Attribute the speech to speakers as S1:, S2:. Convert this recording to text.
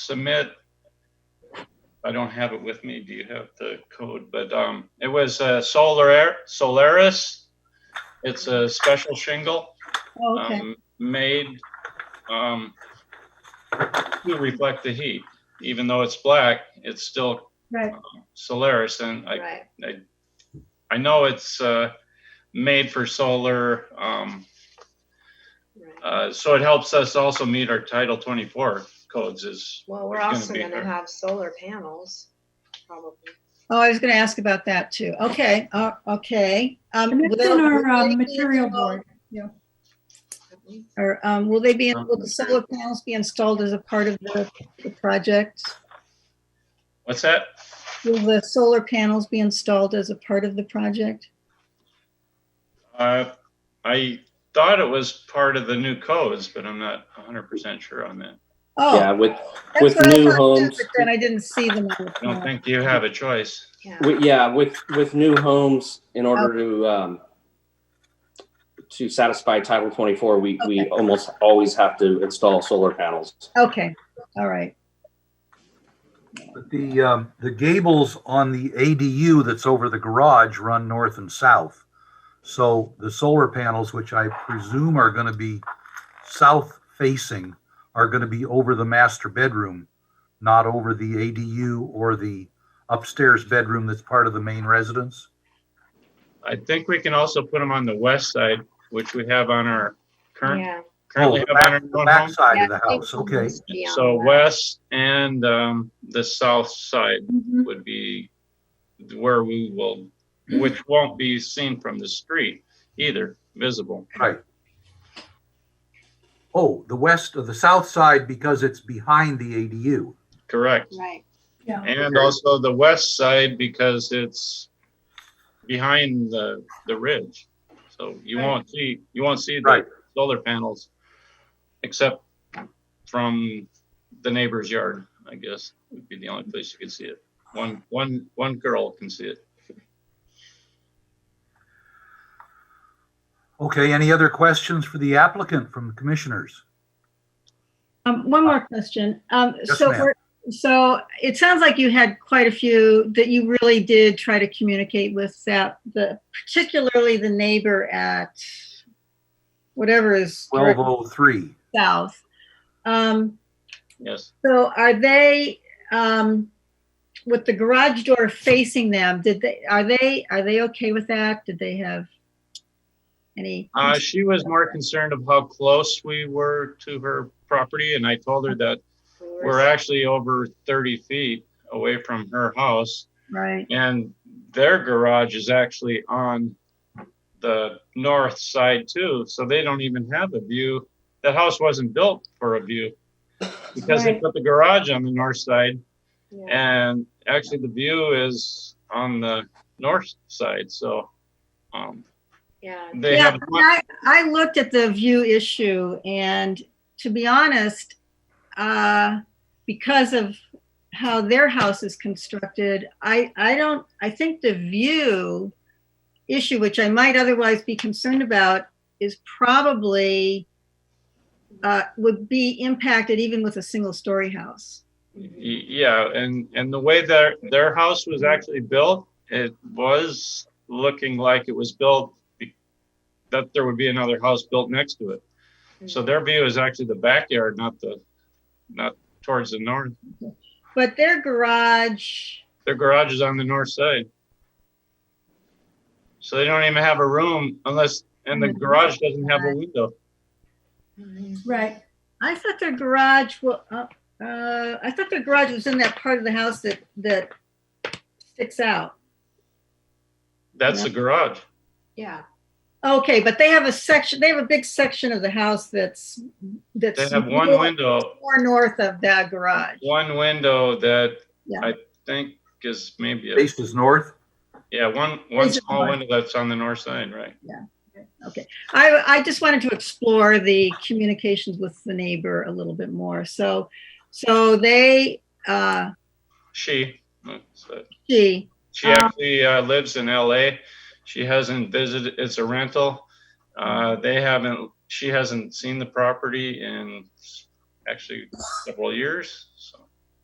S1: submit. I don't have it with me. Do you have the code? But um, it was uh, Solar Solaris. It's a special shingle
S2: Okay,
S1: um, made um, to reflect the heat. Even though it's black, it's still uh,
S2: right,
S1: Solaris, and I
S3: Right.
S1: I know it's uh, made for solar. Um,
S3: right.
S1: uh, so it helps us also meet our Title 24 codes. Is
S3: Well, we're
S1: it's gonna
S3: also
S1: be
S3: gonna
S1: there.
S3: have solar panels, probably.
S2: oh, I was gonna ask about that too, okay, uh, okay. Um,
S4: And that's
S2: will-
S4: in our
S2: will they be
S4: um, material
S2: installed-
S4: board.
S3: haven't we?
S2: Or, um, will they be,
S1: Um,
S2: will the solar panels be installed as a part of the, the project?
S1: what's that?
S2: Will the solar panels be installed as a part of the project?
S1: Uh, I thought it was part of the new codes, but I'm not 100% sure on that.
S5: Yeah,
S2: Oh,
S5: with,
S2: that's
S5: with
S2: what I
S5: new
S2: thought too,
S5: homes-
S2: But then I didn't see them. on the
S1: I don't
S2: plan.
S1: think you have a choice.
S3: Yeah.
S5: with- yeah, with, with new homes, in
S2: Oh.
S5: order to, um, to satisfy Title 24, we, we
S2: Okay.
S5: almost always have to install solar panels.
S2: Okay, all right,
S6: But The, um, the gables on the ADU that's over the garage run north and south. So the solar panels, which I presume are gonna be south facing, are gonna be over the master bedroom, not over the ADU or the upstairs bedroom that's part of the main residence.
S1: I think we can also put them on the west side, which we have on our current,
S3: Yeah.
S6: Oh,
S1: currently have
S6: the
S1: on
S6: back,
S1: our
S6: the
S1: own home.
S6: backside of
S3: Yeah,
S6: the
S3: I think
S6: house,
S3: it
S6: okay.
S3: must be on
S1: So
S3: that.
S1: west and um, the south side
S4: Mm-hmm.
S1: would be where we will, which won't be seen from the street either, visible.
S6: Right. Oh, the west of the south side because it's behind the ADU.
S1: Correct.
S3: Right,
S4: Yeah.
S1: And also the west side because it's behind the, the ridge. So you won't see, you won't see the
S6: Right.
S1: solar panels except from the neighbor's yard, I guess, would be the only place you could see it. One, one, one girl can see it.
S6: Okay, any other questions for the applicant from commissioners?
S4: Um, one more question. Um,
S6: Uh, Yes,
S4: so,
S6: ma'am.
S4: we're- so it sounds like you had quite a few that you really did try to communicate with that, the, particularly the neighbor at whatever is
S6: Twelve oh three.
S4: south. Um,
S1: Yes.
S4: so are they, um, with the garage door facing them, did they, are they, are they okay with that? Did they have any?
S1: Uh, she was more concerned of how close we were to her property and I told her that
S3: we
S1: we're actually over thirty feet away from her house.
S4: Right,
S1: And their garage is actually on the north side too, so they don't even have a view. That house wasn't built for a view because they
S4: Right.
S1: put the garage on the north side,
S3: yeah.
S1: and actually the view is on the north side. So um,
S3: Yeah,
S1: they
S4: yeah,
S1: have
S4: I mean, I, I looked at the view issue, and to be honest, uh, because of how their house is constructed, I, I don't, I think the view issue, which I might otherwise be concerned about, is probably uh, would be impacted even with a single story house.
S1: Y- Yeah, and and the way their their house was actually built, it was looking like it was built be- that there would be another house built next to it.
S3: Mm-hmm.
S1: So their view is actually the backyard, not the not towards the north.
S4: But their garage,
S1: Their garage is on the north side. So they don't even have a room unless and the garage doesn't have a window.
S3: Mhm.
S4: Right. I thought their garage, well, uh, uh, I thought their garage was in that part of the house that, that sticks out.
S1: That's the garage.
S3: Yeah,
S4: Okay, but they have a section, they have a big section of the house that's, that's.
S1: They have one
S4: more-
S1: window,
S4: More north of that garage.
S1: one window that
S4: Yeah.
S1: I think is maybe a
S6: Faces north.
S1: Yeah, one one
S4: Is it
S1: small
S4: north?
S1: window that's on the north side, right?
S4: Okay. I, I just wanted to explore the communications with the neighbor a little bit more. So, so they, uh,
S1: She, so
S4: she,
S1: she
S4: Um,
S1: actually uh, lives in L.A. She hasn't visited. It's a rental. Uh, they haven't. She hasn't seen the property in actually several years. So